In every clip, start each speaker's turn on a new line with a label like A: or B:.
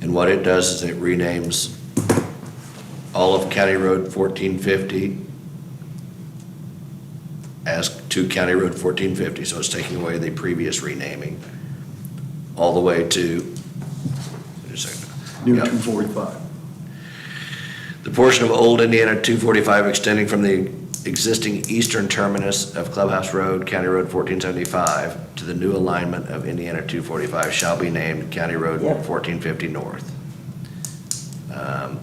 A: And what it does is it renames all of County Road fourteen fifty as to County Road fourteen fifty, so it's taking away the previous renaming, all the way to, just a second.
B: New
A: Yeah.
B: 245.
A: The portion of Old Indiana 245 extending from the existing eastern terminus of Clubhouse Road, County Road 1475, to the new alignment of Indiana 245 shall be named County Road
C: Yep.
A: 1450 North. Um,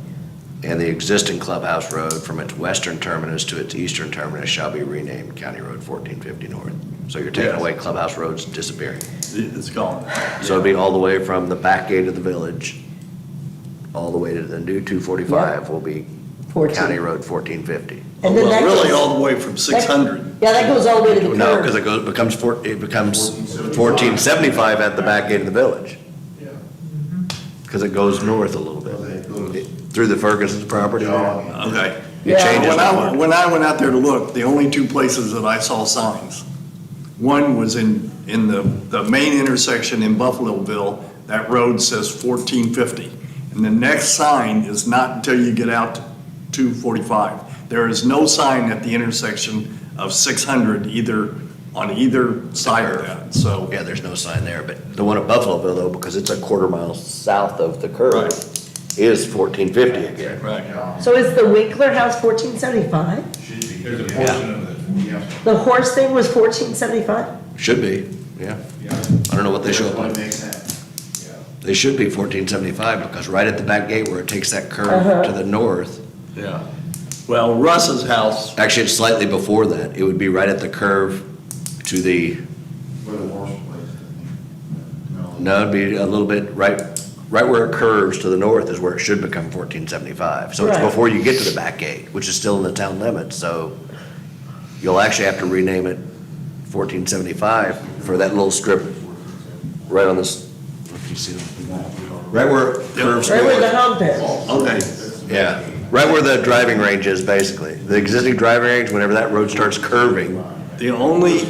A: And the existing Clubhouse Road from its western terminus to its eastern terminus shall be renamed County Road 1450 North. So you're taking
B: Yes.
A: away Clubhouse Road's disappearing.
B: It- It's gone.
A: So it'd be all the way from the back gate of the village, all the way to the new 245 will be County
C: fourteen.
A: Road 1450.
C: And then
B: Well,
C: that
B: really,
C: goes-
B: all the way from 600.
C: Yeah, that goes all the way to the
A: No, because
C: curb.
A: it goes, becomes, four- it becomes 1475 at the back gate of the village. Because it goes north a little bit, through the Ferguson's property.
B: Okay.
A: It changes
B: When
A: the
B: I,
A: mark.
B: when I went out there to look, the only two places that I saw signs, one was in, in the, the main intersection in Buffaloville, that road says 1450. And the next sign is not until you get out to 245. There is no sign at the intersection of 600 either, on either side of that, so.
A: Oh, Yeah, there's no sign there, but the one at Buffalo though, because it's a quarter mile south of the curve, is 1450 again.
B: Right.
C: So is the Winkler House fourteen seventy-five?
D: Should be. There's a portion of it, yeah.
C: The horse thing was fourteen seventy-five?
A: Should be, yeah.
D: Yeah.
A: I don't know what they show up on.
D: That makes sense. Yeah.
A: They should be 1475 because right at the back gate where it takes that curve to the north,
B: Yeah. Well, Russ's house,
A: Actually, it's slightly before that. It would be right at the curve to the,
D: Where the horse place, I think.
A: no, it'd be a little bit right, right where it curves to the north is where it should become fourteen seventy-five. So it's
C: Right.
A: before you get to the back gate, which is still in the town limits, so you'll actually have to rename it fourteen seventy-five for that little strip right on this, if you see them. Right where it curves
C: Right where the
A: north.
C: hump is?
B: okay.
A: Yeah, right where the driving range is, basically. The existing driving range, whenever that road starts curving,
B: The only,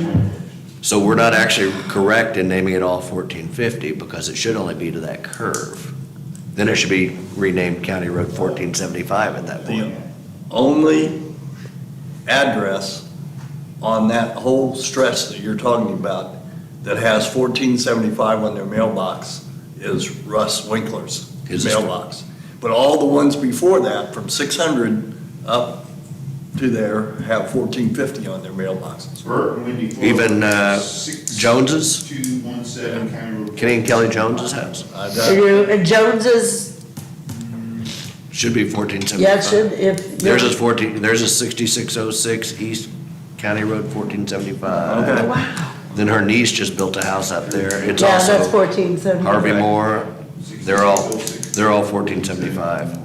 A: So we're not actually correct in naming it all fourteen fifty, because it should only be to that curve. Then it should be renamed County Road fourteen seventy-five at that point.
B: the only address on that whole stretch that you're talking about that has fourteen seventy-five on their mailbox is Russ Winkler's
A: His is-
B: mailbox. But all the ones before that, from six hundred up to there, have fourteen fifty on their mailboxes.
D: Bert, Wendy. Ford.
A: Even, uh,
D: Six-
A: Joneses?
D: Two, one, seven, County Road.
A: Kenny and Kelly Jones's house
B: I
C: So
B: don't-
C: you- And Jones's,
A: should be fourteen seventy-five.
C: yeah, it should, if.
A: Theirs is fourteen, theirs is sixty-six oh six East County Road fourteen seventy-five.
B: Okay.
C: Wow.
A: Then her niece just built a house up there. It's
C: Yeah, that's
A: also
C: fourteen seventy-five.
A: Harvey Moore. They're all, they're all fourteen seventy-five.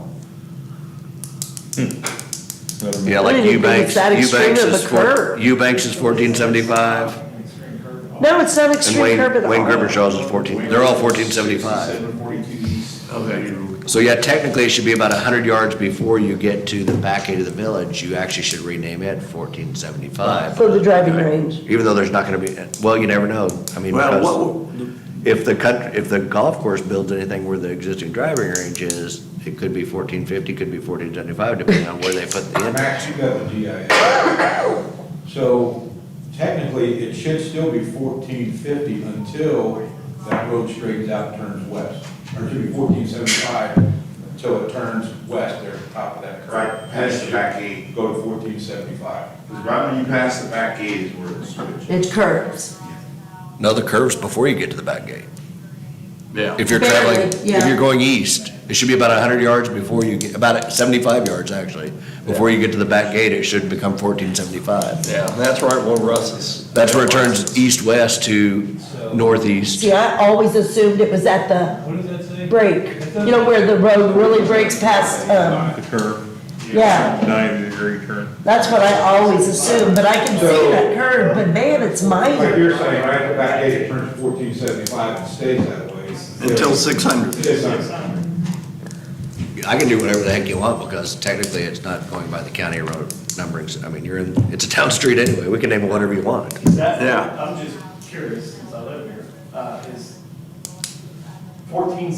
A: Yeah, like
C: Really, you think
A: Eubanks,
C: it's that extreme
A: Eubanks
C: of
A: is
C: a
A: four,
C: curve?
A: Eubanks is fourteen seventy-five,
C: No, it's not
A: and
C: extreme
A: Wayne,
C: curb at all.
A: Wayne Grippershaw's is fourteen, they're all fourteen seventy-five.
D: Seven forty-two east.
B: Okay.
A: So yeah, technically, it should be about hundred yards before you get to the back end of the village, you actually should rename it fourteen seventy-five.
C: For the driving range.
A: Even though there's not gonna be, well, you never know, I mean,
B: Well,
A: because
B: what,
A: if the country, if the golf course builds anything where the existing driving range is, it could be fourteen fifty, could be fourteen seventy-five, depending on where they put the end.
E: Max, you got the GIS. So technically, it should still be fourteen fifty until that road straightens out and turns west. Or it should be fourteen seventy-five until it turns west there at the top of that curve.
D: Right, past the back gate.
E: Go to fourteen seventy-five.
D: Because right when you pass the back gate is where it's switched.
C: It curves.
A: No, the curve's before you get to the back gate.
B: yeah.
A: If you're
C: Barely,
A: traveling, if
C: yeah.
A: you're going east, it should be about hundred yards before you get, about seventy-five yards actually. Before you get to the back gate, it should become fourteen seventy-five.
B: Yeah, that's right, well, Russ's.
A: That's where it turns east-west to northeast.
C: See, I always assumed it was at the
F: What does that say?
C: break, you know, where the road really breaks past, um,
G: The curve.
C: Yeah.
G: Ninety degree turn.
C: that's what I always assumed, but I can see that curve, but man, it's
E: Like
C: minor.
E: you're saying, right at the back gate, it turns fourteen seventy-five and stays that way.
B: Until six hundred.
E: It's not-
A: I can do whatever the heck you want because technically it's not going by the county road numberings. I mean, you're in, it's a town street anyway. We can name it whatever you want.
H: Is that-
B: Yeah.
H: I'm just curious, since I live here, uh, is fourteen